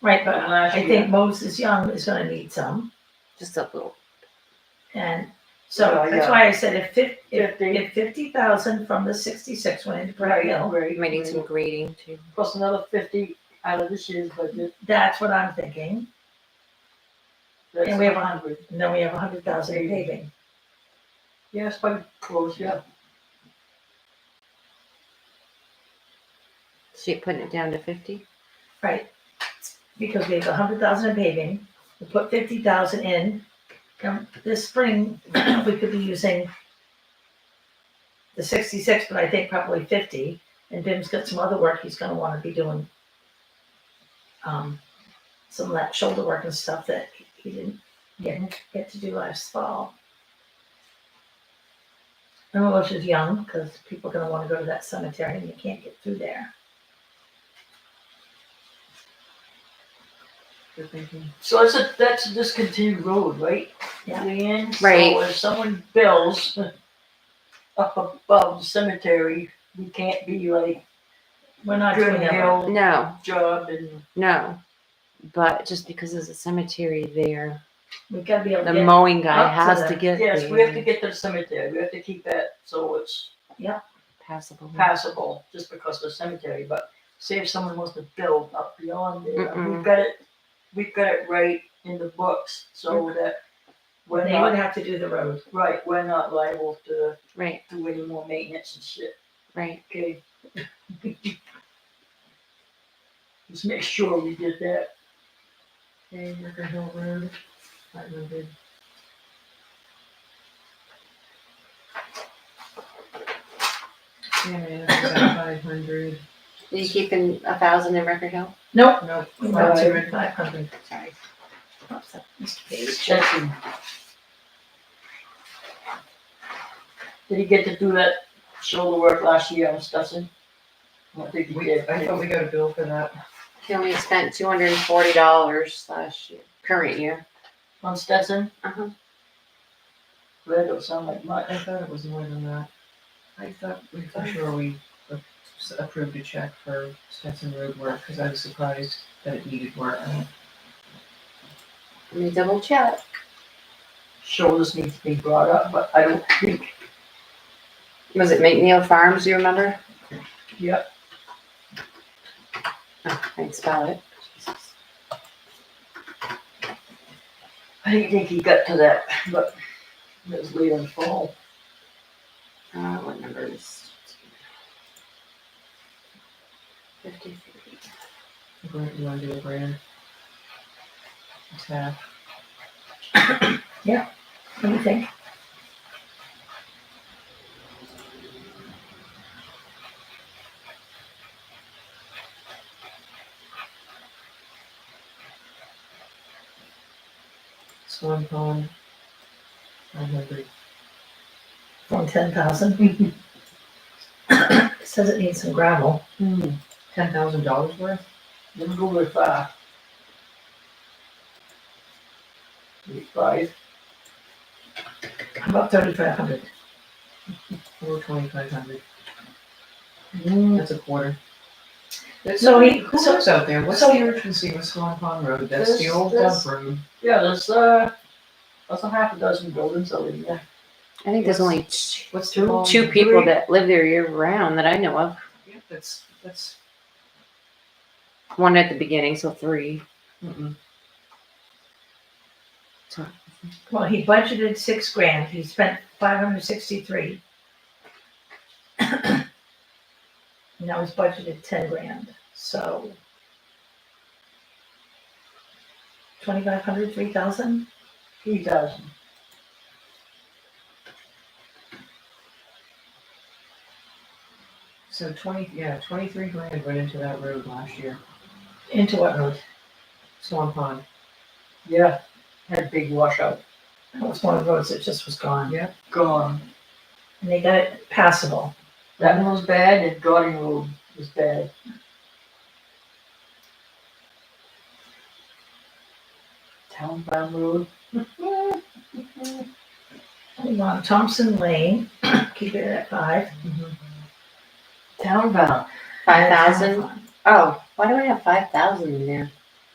Right, but from last I year. think Moses Young is gonna need some, just a little. and so Oh, that's yeah. why I said if fif- if, Fifty. if fifty thousand from the sixty-six went into Pratt Right, Hill, right. We might need some grading too. Plus another fifty out of this year's budget. that's what I'm thinking, That's And we have a 100. and then we have a hundred thousand in paving. Yeah, it's quite close, yeah. So you're putting it down to fifty? Right, because we have a hundred thousand in paving, we put fifty thousand in, and this spring, we could be using the sixty-six, but I think probably fifty, and Bim's got some other work he's gonna wanna be doing. Um, some of that shoulder work and stuff that he didn't get, get to do last fall. And we'll is young, cause people are gonna wanna go to that cemetery and you can't get through there. Good thinking. So that's a, that's a discontinued road, right? Yeah. Leanne? Right. So if someone builds up above the cemetery, we can't be like We're not doing good that. hill No, job and no. But just because there's a cemetery there, We've got to be able to the get, mowing guy Up to has to the- get yes, we have to there get to the cemetery. We have to keep that so it's passable. passable just because of the cemetery, but say if someone wants to build up beyond there, Mm-mm. we've got it, we've got it right in the books so that we're they would not, have to do the road. right, we're not liable to Right, do any more maintenance and shit, right. okay? Just make sure we did that. Okay, Ricker Hill Road, that would be. Yeah, five hundred. Are you keeping a thousand in Record Hill? Nope. Nope. Not to five hundred. Sorry. Mr. Page. Checking. Did he get to do that shoulder work last year on Stetson? I don't think he did. I thought we got a bill for that. He only spent two hundred and forty dollars last year, current year. On Stetson? Uh-huh. Well, it don't sound like much. I thought it was more than that. I thought, we for sure we approved a check for Stetson Road work, because I was surprised that it needed work. Let me double check. Shoulders need to be brought up, but I don't think, Was it McNeil Farms, you remember? yep, Oh, I can spell it. I didn't think he got to that, but it was late in the fall. Uh, what number is? Fifty-three. Grant, you wanna do a grand? It's half. What do you think? Swan Pond. Nine hundred. From ten thousand? Says it needs some gravel. Hmm, Ten thousand dollars worth? didn't go uh, very far. Maybe Five, About thirty-five hundred. Or twenty-five hundred? Hmm, That's a quarter. Mm. That's- So he- Who so- lives out there? What's so- the urgency with Swan Pond Road? That's the This- old this- dump road. yeah, there's, uh, there's a half a dozen buildings out in there. I think there's Yes. only two, What's the long? two people that live there year round that I know of. Yeah, that's, that's, One at the beginning, so three. mm-mm. So Well, he budgeted six grand. He spent five hundred sixty-three. Now he's budgeted ten grand, so. Twenty-five hundred, three thousand? He doesn't. So twenty, yeah, twenty-three grand went into that road last year. Into what road? Swan Pond. Yeah, had a big washout. That was one of the roads that just was gone. Gone. And they got it passable. That one was bad, and Garden Road was bad. Town Farm Road. We want Thompson Lane, keep it at five. Town Farm. five thousand. Oh, why do I have five thousand in there?